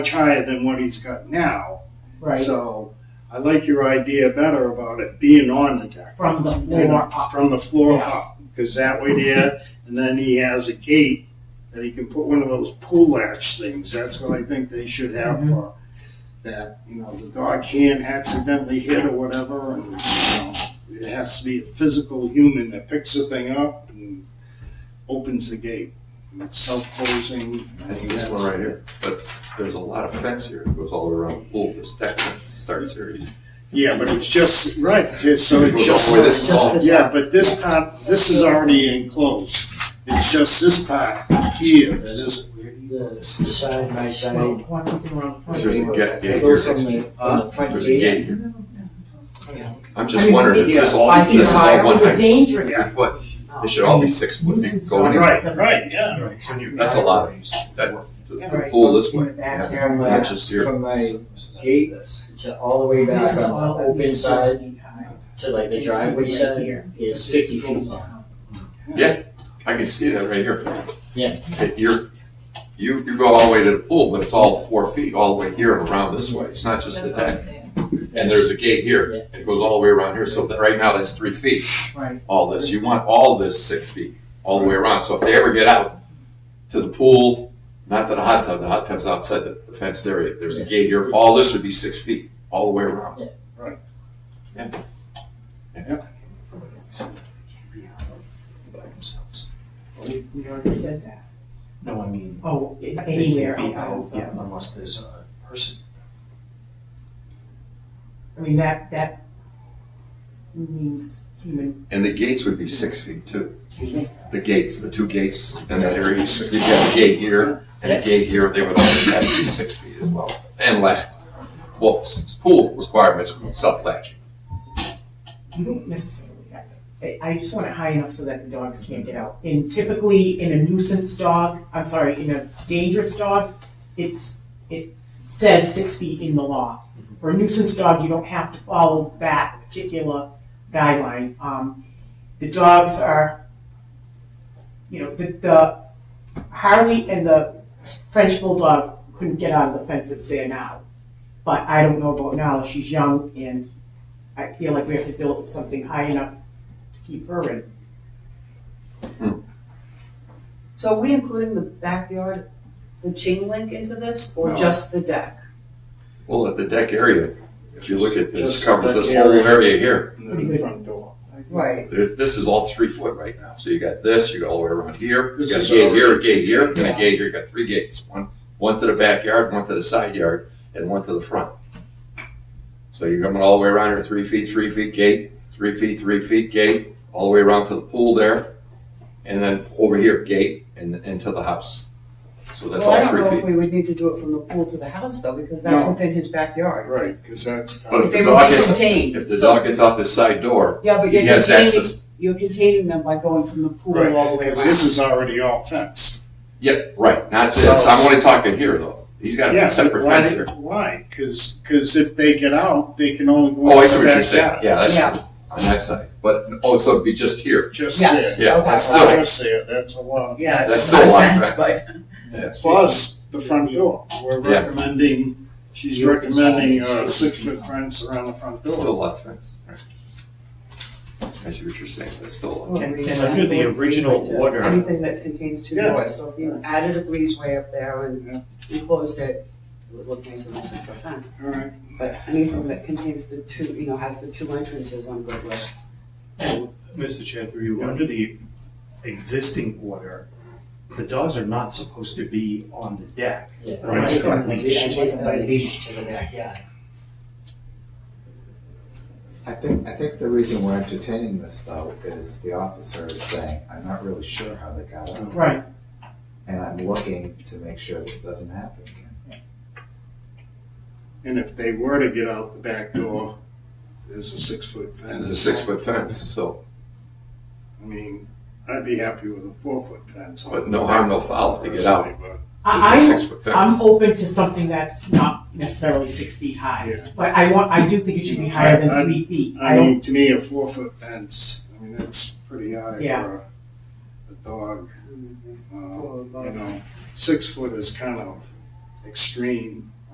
much higher than what he's got now. right, So I like your idea better about it being on the deck. from the you know, floor up. From the floor Yeah. up, because that way there, and then he has a gate that he can put one of those pull latch things. That's what I think they should Mm-hmm. have for that, you know, the dog can't accidentally hit or whatever, and, you know, it has to be a physical human that picks the thing up and opens the gate. And it's self-closing. I This mean, is that's- one right here, but there's a lot of fence here that goes all the way around the pool, this deck fence starts here. You- Yeah, but it's just, right, it's, so It it's goes all the way just, this Just long. the- yeah, but this part, this is already enclosed. It's just this part here that is, The side by Well, side. one thing wrong. There's a gate, gate here, Goes that's- from the, from uh, the front there's a gate gate. here. Yeah. I'm just wondering, is this all, Five feet this is higher all one would be height? dangerous. Three foot, it should all be six foot, you can go anywhere. right, right, yeah. That's a lot. That, the- the pool this way, yes, From it's not just here. my, from my gate, it's all the way back This is from all the of open these side feet high. to like the driveway side Here. is fifty feet long. I can see that right here. Yeah. That You're, you, you go all the way to the pool, but it's all four feet, all the way here and around this way, it's not just the That's all deck. there. And there's a gate here, Yeah. it goes all the way around here, so that, right now, that's three feet. Right, all this. You want all this six feet, all the way around. So if they ever get out to the pool, not to the hot tub, the hot tub's outside the the fenced area, there's a gate here, all this would be six feet, all the way around. Yeah. Right. Yeah. Yeah. we, we already said that. No, I mean, Oh, a- they can't anywhere be out, else. yeah, unless there's a person. I mean, that, that means human. And the gates would be six feet too. The gates, the two gates, and that area, you get a gate here and a gate here, they would all have to be six feet as well. And latch. Well, since pool requirements, self-latching. You don't necessarily have to. I, I just want it high enough so that the dogs can't get out. And typically, in a nuisance dog, I'm sorry, in a dangerous dog, it's, it says six feet in the law. For a nuisance dog, you don't have to follow that particular guideline. Um, the dogs are, you know, the, the Harley and the French Bulldog couldn't get out of the fence that's there now. But I don't know about Nala, she's young and I feel like we have to build something high enough to keep her in. So are we including the backyard, the chain link into this, or No. just the deck? Well, at the deck area, if you look at Just this, covers this that whole area. area here. And then the front door. Right. There's, this is all three foot right now, so you got this, you got all the way around here, you This got a is gate here, a already- gate here, and a Yeah. gate here, you got three gates, one, one to the backyard, one to the side yard, and one to the front. So you're coming all the way around here, three feet, three feet gate, three feet, three feet gate, all the way around to the pool there, and then over here, gate, and, and to the house. So that's Well, I all don't three know if feet. we would need to do it from the pool to the house though, because that's No. within his backyard. Right, because that's. But if They the will dog be gets, contained. if the dog gets out this side door, Yeah, but he you're has containing, access. you're containing them by going from the pool all the way Right, around. because this is already all fenced. Yep, right, not this, I'm only talking here though, he's got Yeah, a but separate why- fence here. Why? Because, if they get out, they can only go. Oh, I in see the what you're saying, backyard. yeah, that's Yeah. on that side, but, oh, so it'd be just here, Just Yes. there. Oh, yeah, Okay. that's still, Just there, that's a lot. Yeah. that's it's still a not lot of fenced, fence. Plus the front door. We're Yeah. recommending, she's recommending a six foot fence around the front It's Still a door. lot of fence. Right. I see what you're saying, that's still a lot. but- And- Well, and under the I would original agree with order- Anything that contains two Yeah. doors, so if you added a breezeway up there and enclosed it, it would look nice in a six foot fence. All right, But anything that contains the two, you know, has the two entrances, I'm good with. Mr. Chair, through you, Yeah. under the existing order, the dogs are not supposed to be on the deck. Yeah. Right. It's got a leash, it doesn't have a leash to the backyard. I think, I think the reason we're entertaining this though is the officer is saying, I'm not really sure how they got out, Right. and I'm looking to make sure this doesn't happen again. and if they were to get out the back door, there's a six foot fence. It's a six foot fence, so, I mean, I'd be happy with a four foot fence. but no harm, no foul if they get out. I, It's a I'm, six foot I'm fence. open to something that's not necessarily six feet high, Yeah, but I want, I do think it should be higher I- I- than three feet. I I don't, mean, to me, a four foot fence, I mean, that's pretty high Yeah. for a, a dog. Uh, For a You dog. know, six foot is kind of extreme.